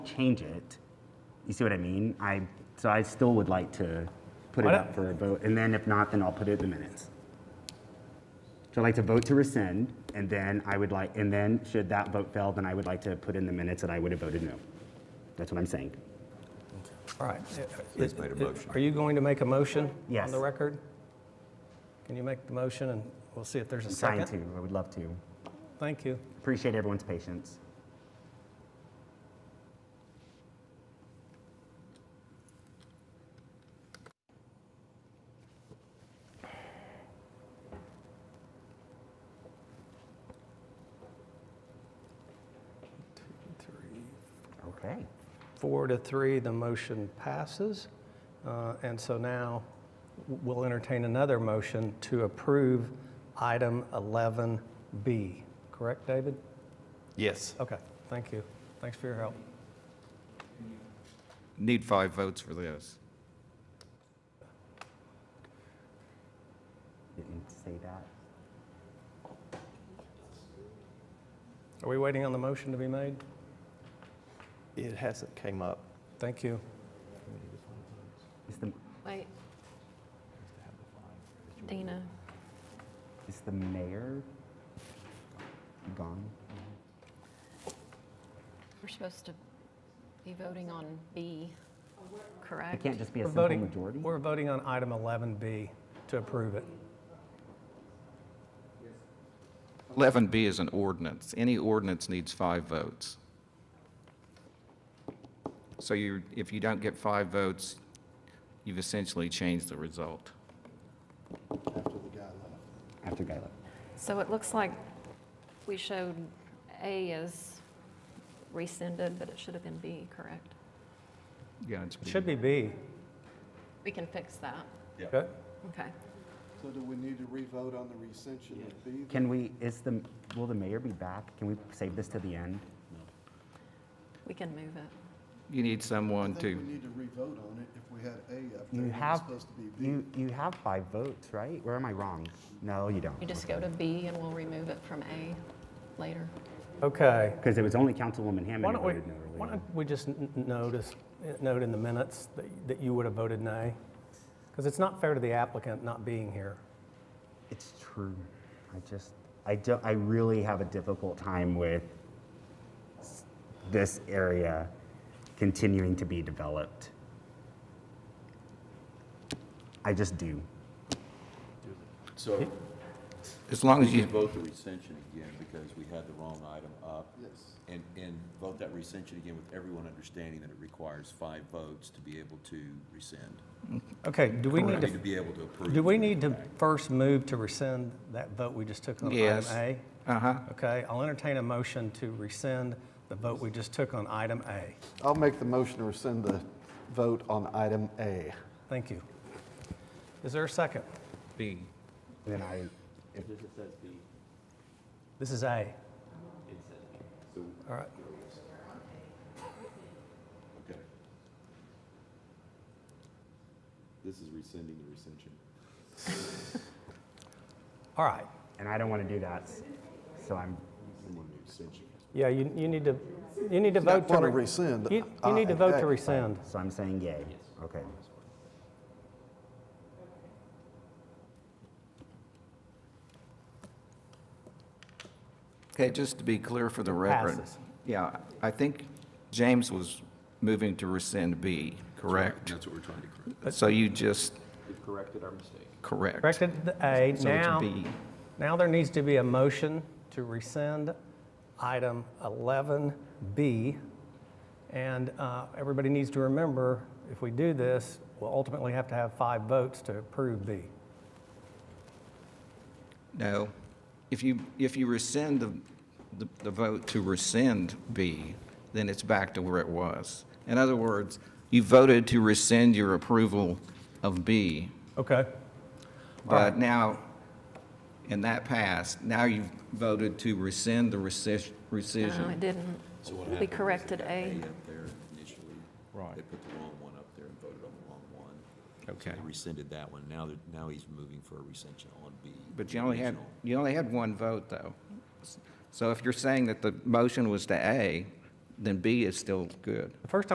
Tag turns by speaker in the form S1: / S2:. S1: change it. You see what I mean? I, so I still would like to put it
S2: Why
S1: up
S2: not?
S1: for a vote, and then if not, then I'll put it in the minutes. So I'd like to vote to rescind, and then I would like, and then should that vote fail, then I would like to put in the minutes that I would have voted no. That's what I'm saying.
S2: All right. Uh,
S3: He's made a motion.
S2: Are you going to make a motion?
S1: Yes.
S2: On the record? Can you make the motion and we'll see if there's a
S1: I'm trying
S2: second?
S1: to, I would love to.
S2: Thank you.
S1: Appreciate everyone's patience.
S2: Three,
S1: Okay.
S2: Four to three, the motion passes. Uh, And so now we'll entertain another motion to approve item 11B. Correct, David?
S3: Yes.
S2: Okay, thank you. Thanks for your help.
S3: Need five votes for this.
S1: Didn't say that.
S2: Are we waiting on the motion to be made?
S4: It hasn't came up.
S2: Thank you.
S1: It's the,
S5: Wait. Dana,
S1: is the mayor gone?
S5: we're supposed to be voting on B,
S1: It
S5: correct?
S1: can't just be a
S2: We're
S1: simple
S2: voting-
S1: majority?
S2: We're voting on item 11B to approve it.
S3: 11B is an ordinance. Any ordinance needs five votes. So you, if you don't get five votes, you've essentially changed the result.
S1: After Guy left.
S5: So it looks like we showed A as rescinded, but it should have been B, correct?
S3: Yeah, it's.
S2: It should be B.
S5: We can fix that.
S2: Okay.
S5: Okay.
S6: So do we need to re-vote on the recension of B?
S1: Can we, is the, will the mayor be back? Can we save this to the end?
S5: We can move it.
S3: You need someone
S6: I think we
S3: to,
S6: need to re-vote on it if we had A up
S1: You
S6: there. and it was
S1: have,
S6: supposed to be B.
S1: you, you have five votes, right? Where am I wrong? No, you don't.
S5: You just go to B and we'll remove it from A later.
S2: Okay.
S1: Because it was only Councilwoman
S2: Why
S1: Hammond who
S2: don't we,
S1: voted no earlier.
S2: why don't we just n- n- notice, eh, note in the minutes that, that you would have voted nay? Because it's not fair to the applicant not being here.
S1: It's true. I just, I don't, I really have a difficult time with s- this area continuing to be developed. I just do.
S7: So
S3: as long
S7: we
S3: as you,
S7: can vote the recension again because we had the wrong item up.
S6: Yes.
S7: And, and vote that recension again with everyone understanding that it requires five votes to be able to rescind.
S2: Okay, do we
S7: I
S2: need
S7: mean, to
S2: to,
S7: be able to approve.
S2: do we need to first move to rescind that vote we just took on item
S3: Yes.
S2: A?
S3: uh-huh.
S2: Okay, I'll entertain a motion to rescind the vote we just took on item A.
S4: I'll make the motion to rescind the vote on item A.
S2: Thank you. Is there a second?
S3: B.
S1: And then I,
S2: This is A. All right,
S7: Okay. This is rescinding the recension.
S2: all right.
S1: and I don't want to do that, so I'm,
S2: Yeah, you, you need to, you need to
S4: I
S2: vote to.
S4: want to
S2: re-
S4: rescind.
S2: You,
S6: uh,
S2: you need to
S4: item
S2: vote to
S4: A.
S2: rescind.
S1: so I'm saying yay. Okay.
S3: Okay, just to be clear for the record.
S2: passes.
S3: Yeah, I think James was moving to rescind B, correct?
S7: That's what we're trying to correct.
S3: So you just
S7: We've corrected our mistake.
S3: correct.
S2: Corrected the A.
S3: So it's
S2: Now,
S3: B.
S2: now there needs to be a motion to rescind item 11B. And uh, everybody needs to remember, if we do this, we'll ultimately have to have five votes to approve B.
S3: No. If you, if you rescind the, the- the vote to rescind B, then it's back to where it was. In other words, you voted to rescind your approval of B,
S2: Okay.
S3: but now, and that passed, now you've voted to rescind the rescis-
S5: No,
S3: rescission.
S5: it didn't.
S7: So what
S5: We
S7: happened was
S5: corrected
S7: they got
S5: A.
S7: up there initially.
S3: Right.
S7: They put the wrong one up there and voted on the wrong one. So
S3: Okay.
S7: They rescinded that one. Now, they're- now he's moving for a recension on B.
S3: But you only had,
S7: original.
S3: you only had one vote, though. So if you're saying that the motion was to A,
S8: then B is still good.
S3: The first time